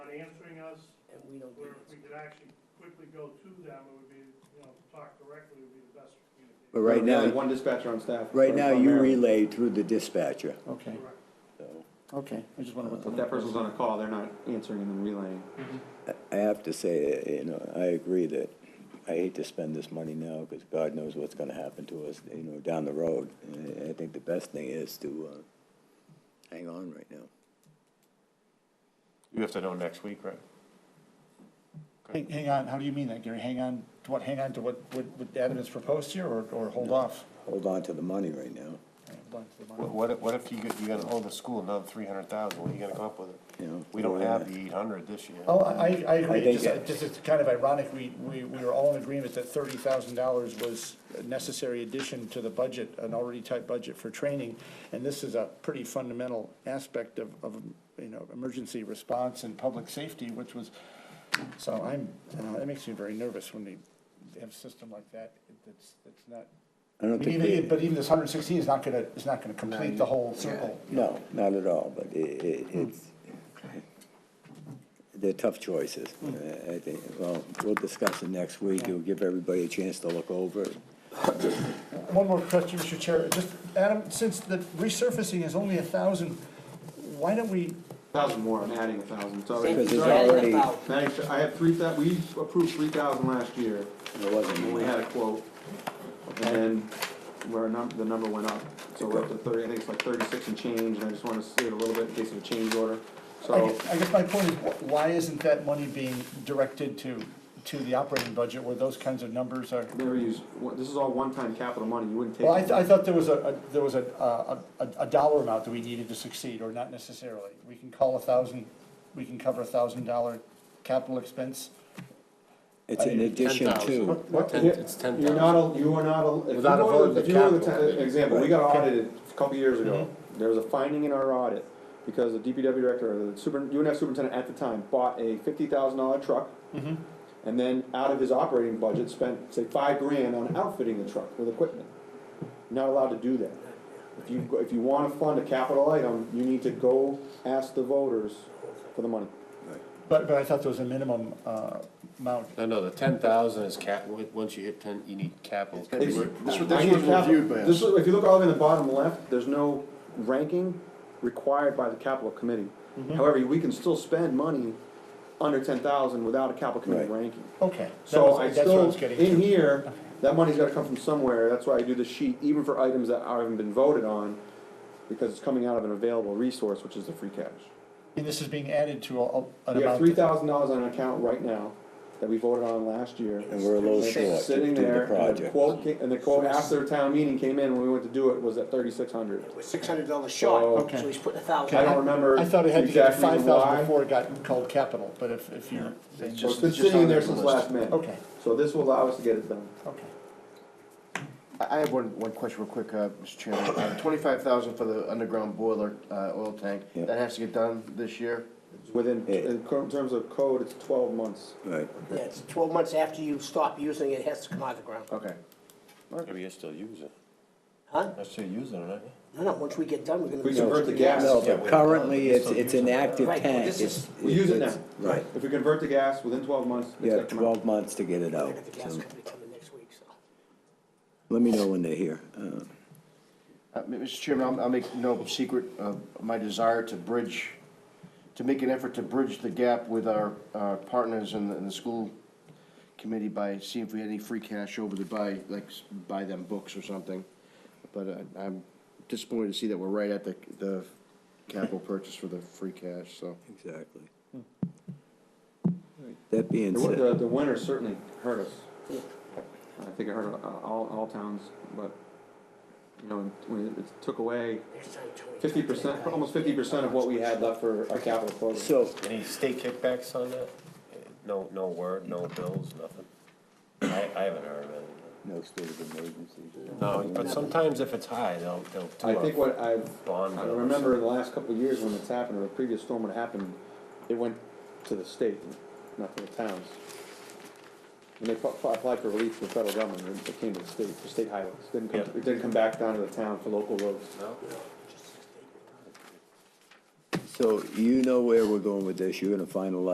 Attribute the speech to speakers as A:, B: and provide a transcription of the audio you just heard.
A: us,
B: and we don't
A: where
B: get
A: if
B: it.
A: we could actually quickly go to them, it would be, you know, talk directly would be the best
C: But
A: communication.
C: right
D: We only
C: now,
D: have One dispatcher on staff.
C: right
D: for-
C: now
D: for
C: you
D: Mary.
C: relay through the dispatcher,
E: Okay,
A: Correct.
D: So,
E: okay, I just wondered what the.
D: If that person's on a call, they're not answering and then relaying.
C: I- I have to say, uh, you know, I agree that I hate to spend this money now because God knows what's going to happen to us, you know, down the road. And I- I think the best thing is to uh, hang on right now.
F: You have to know next week, right?
E: Hang, hang on, how do you mean that, Gary? Hang on to what, hang on to what, what, what Adam has proposed here, or, or hold off?
C: Hold on to the money right now,
E: All right, hold on to the
F: What-
E: bottom.
F: What, if- what if you, get- you gotta owe the school another three hundred thousand, what are you gonna come up with?
C: you know.
F: We don't have the eight hundred this year.
E: Oh, I, I agree,
C: think
E: just, uh,
C: it-
E: just it's kind of ironic, we, we, we were all in agreement that thirty thousand dollars was a necessary addition to the budget, an already tight budget for training, and this is a pretty fundamental aspect of, of, you know, emergency response and public safety, which was, so I'm, uh, that makes me very nervous when they have a system like that, that's, that's not
C: I don't
E: But
C: think,
E: even,
C: they-
E: but even this hundred and sixteen is not gonna, is not gonna complete the whole circle.
C: no, not at all, but i- i- it's, they're tough choices. Uh, I think, well, we'll discuss it next week. It'll give everybody a chance to look over it.
E: One more question, Mr. Chair, just, Adam, since the resurfacing is only a thousand, why don't we,
D: Thousand more, I'm adding a thousand, so.
C: Because
B: Thank you
C: there's
B: for adding
C: already-
B: about-
D: Thanks, I have three thou, we approved three thousand last year,
C: There wasn't.
D: and we had a quote. And then where num, the number went up, so we're up to thirty, I think it's like thirty-six and change, and I just wanna save a little bit in case of a change order.
E: I
C: Oh.
D: So,
E: guess, I guess my point is, wh- why isn't that money being directed to, to the operating budget where those kinds of numbers are?
D: never use, one- this is all one-time capital money, you wouldn't take.
E: Well, I, th- I thought there was a, a- there was a, a, a- a dollar amount that we needed to succeed, or not necessarily. We can call a thousand, we can cover a thousand dollar capital expense.
C: It's in addition to,
D: What,
F: Ten-
D: yeah,
F: it's ten
D: You're
F: thousand.
D: not, a- you are not, a- if you
F: Without a vote
D: were,
F: of
D: if
F: the
D: you were the,
F: capital.
D: town- example, we got audited a couple years ago. There was a finding in our audit, because the DPW director, or the super, UNF superintendent at the time, bought a fifty thousand dollar truck. And then out of his operating budget, spent, say, five grand on outfitting the truck with equipment. You're Not allowed to do that. If you, go- if you wanna fund a capital item, you need to go ask the voters for the money.
E: But, but I thought there was a minimum uh, amount.
G: No, no, the ten thousand is cap, on- once you hit ten, you need capital.
D: It's-
G: This
D: I need capital- this was- if you look all the way in the bottom left, there's no ranking required by the capital committee.
E: Mm-hmm.
D: However, we can still spend money under ten thousand without a capital committee
C: Right.
D: ranking.
E: Okay. that
D: So
E: was-
D: I
E: That's what I
D: still,
E: was getting
D: in
E: to.
D: here, that money's gotta come from somewhere, that's why I do the sheet, even for items that haven't been voted on, because it's coming out of an available resource, which is the free cash.
E: And this is being added to a- a- an
D: We have
E: amount.
D: three thousand dollars on an account right now that we voted on last year.
C: and we're a little
D: It's
C: short to
D: Sitting
C: do
D: there,
C: the
D: and the
C: project.
D: quote, ca- and the quote after town meeting came in, when we went to do it, was at thirty-six hundred.
B: We're six hundred dollars short,
E: Okay.
B: so he's putting a
D: I
B: thousand.
D: don't remember
E: I thought it had to get
D: exactly
E: five thousand
D: why.
E: before it got called capital, but if, if you're. saying-
D: So it's been sitting in there since last May.
E: Okay,
D: So this will allow us to get it done.
E: okay.
G: I I have one, one question real quick, uh, Mr. Chairman. Twenty-five thousand for the underground boiler, uh, oil tank,
C: Yeah.
G: that has to get done this year?
D: Within,
C: Yeah.
D: in cur- terms of code, it's twelve months.
C: right.
B: Yeah, it's twelve months after you stop using it, it has to come out of the ground.
G: Okay.
F: Maybe you still use it.
B: Huh?
F: I still use it, aren't you?
B: No, no, once we get done, we're gonna.
D: We
B: be-
D: convert the gas.
C: No, but currently, it's, it's an active
B: Right,
C: tank.
B: this
C: It's-
B: is-
D: We use it now.
C: it's- Right.
D: If we convert the gas, within twelve months, it's
C: You
D: gotta
C: have
D: come out.
C: twelve months to get it
B: I
C: out.
B: got the gas
C: so
B: company coming next week, so.
C: Let me know when they're here. Uh,
G: Uh, m- Mr. Chairman, I'll, I'll make no secret of my desire to bridge, to make an effort to bridge the gap with our, our partners in the, in the school committee by seeing if we had any free cash over to buy, like, s- buy them books or something. But uh, I'm disappointed to see that we're right at the, the capital purchase for the free cash, so.
C: Exactly. That being
D: The, wi-
C: said,
D: the, the winter certainly hurt us. I think it hurt uh, all, all towns, but, you know, when it- it took away
B: next time, Tony,
D: fifty percent, almost fifty percent of what we had left for our capital program.
C: so,
F: Any state kickbacks on that? No, no word, no bills, nothing? I, I haven't heard of anything.
C: no state of emergency.
F: No, but sometimes if it's high, they'll, they'll do
D: I think
F: a
D: what I've
F: bond.
D: I
F: bill or
D: remember in the last couple of years when it's happened, or the previous storm when it happened, it went to the state, not to the towns. When they pu- pu- applied for relief from the federal government, it came to the state, for state highways, didn't come,
F: Yeah.
D: it didn't come back down to the town for local roads.
C: So you know where we're going with this. You're gonna finalize